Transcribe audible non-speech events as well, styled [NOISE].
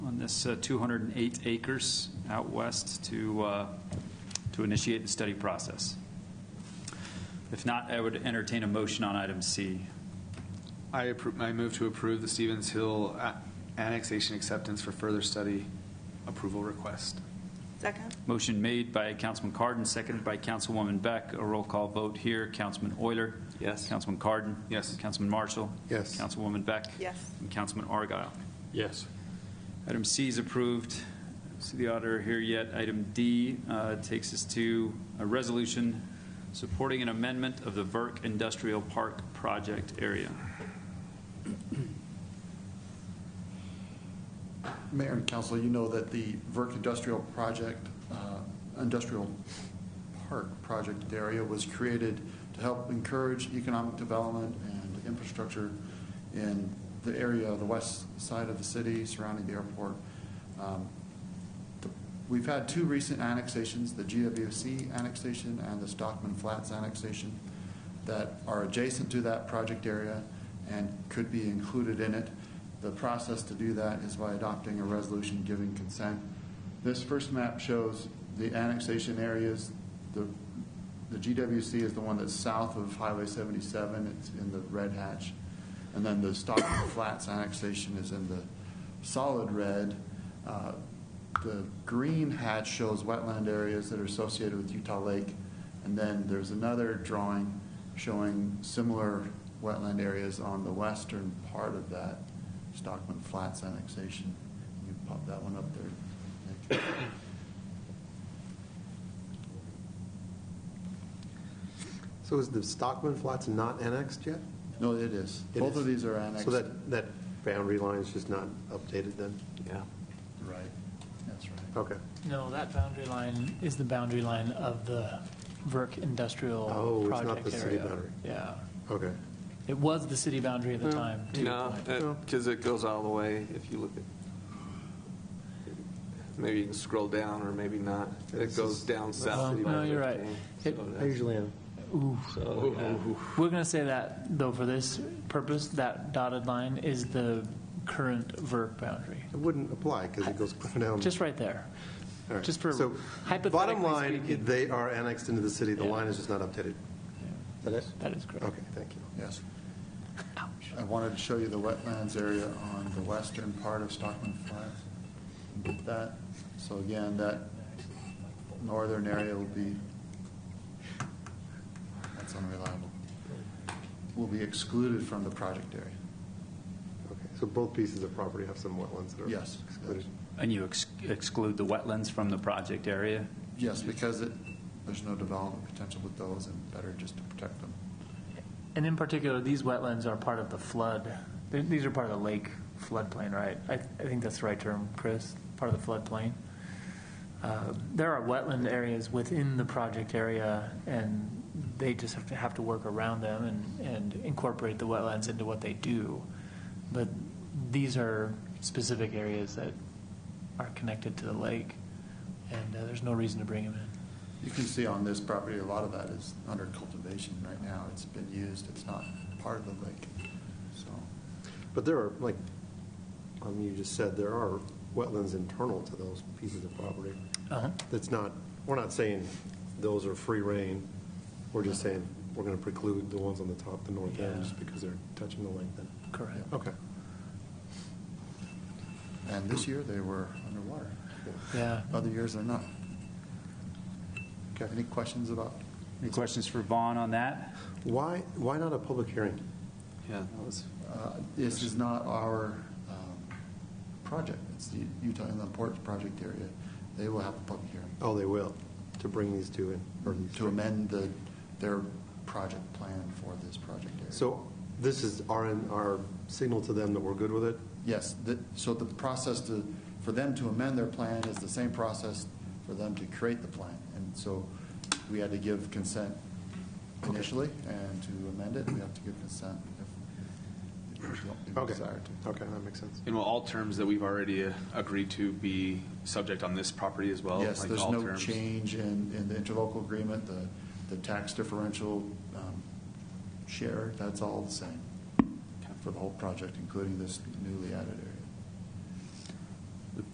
It's uh, 208 acres out west to, uh, to initiate the study process. If not, I would entertain a motion on item C. I approve, I move to approve the Stevens Hill a- annexation acceptance for further study approval request. Second? Motion made by Councilman Cardon, seconded by Councilwoman Beck. A roll call vote here. Councilman Euler? Yes. Councilman Cardon? Yes. Councilman Marshall? Yes. Councilwoman Beck? Yes. And Councilman Argyle. Yes. Item C is approved. See the auditor here yet. Item D uh, takes us to a resolution supporting an amendment of the Verk Industrial Park project area. Mayor and council, you know that the Verk Industrial Project, uh, Industrial Park Project area was created to help encourage economic development and infrastructure in the area of the west side of the city surrounding the airport. Um, the- We've had two recent annexations, the GWC annexation and the Stockman Flats annexation, that are adjacent to that project area and could be included in it. The process to do that is by adopting a resolution giving consent. This first map shows the annexation areas. The the GWC is the one that's south of Highway 77, it's in the red hatch. And then the Stockman [COUGHS] Flats annexation is in the solid red. Uh, The green hatch shows wetland areas that are associated with Utah Lake. And then there's another drawing showing similar wetland areas on the western part of that Stockman Flats annexation. You can pop that one up [COUGHS] there. Nick. So is the Stockman Flats not annexed yet? No, it is. It Both is. of these are annexed. So that, that boundary line is just not updated then? Yeah. Right, that's right. Okay. No, that boundary line is the boundary line of the Verk Industrial Project Oh, area. it's not the city boundary. Yeah. Okay. It was the city boundary at the No. time, to your No, point. because it goes all the way, if you look at, maybe you can scroll down, or maybe not. It This goes is- down that's south. city Um, No, you're right. So It- I that's- usually am. Ooh. so, yeah. We're going to say that, though, for this purpose, that dotted line is the current Verk boundary. It wouldn't apply because it goes down. Just right there. All right. just for- So Bottom hypothetically line, speaking- they are annexed into the city. The Yeah. line is just not updated. Is that it? That is correct. Okay, thank you. Yes. I wanted to show you the wetlands area on the western part of Stockman Flats. That, so again, that northern area will be, that's unreliable, will be excluded from the project area. Okay. So both pieces of property have some wetlands that are Yes. excluded. And you ex- exclude the wetlands from the project area? Yes, because it, there's no development potential with those and better just to protect them. And in particular, these wetlands are part of the flood, th- these are part of the lake floodplain, right? I, I think that's the right term, Chris, part of the floodplain. Uh, There are wetland areas within the project area, and they just have to, have to work around them and, and incorporate the wetlands into what they do. But these are specific areas that are connected to the lake, and uh, there's no reason to bring them in. You can see on this property, a lot of that is under cultivation right now. It's been used, it's not part of the lake, so. But there are, like, um, you just said, there are wetlands internal to those pieces of property. Uh-huh. That's not, we're not saying those are free reign. We're just saying we're going to preclude the ones on the top, the north Yeah. end, just because they're touching the lake then. Correct. Okay. And this year, they were underwater. Yeah. Other years, they're not. Okay, any questions about, Any questions for Vaughn on that? Why, why not a public hearing? Yeah, that was, uh, this is not our um, project, it's the Utah Inland Ports Project area. They will have a public hearing Oh, they will, to bring these two in. or these to three. amend the, their project plan for this project area. So this is our, our signal to them that we're good with it? Yes, the- so the process to, for them to amend their plan is the same process for them to create the plan. And so we had to give consent initially, and to amend it, we have to give consent if- if we don't- if we Okay. desire to. Okay, that makes sense. and will all terms that we've already uh, agreed to be subject on this property as well? Yes, Like there's all no terms? change in, in the interlocal agreement, the, the tax differential um, share, that's all the same for the whole project, including this newly added area.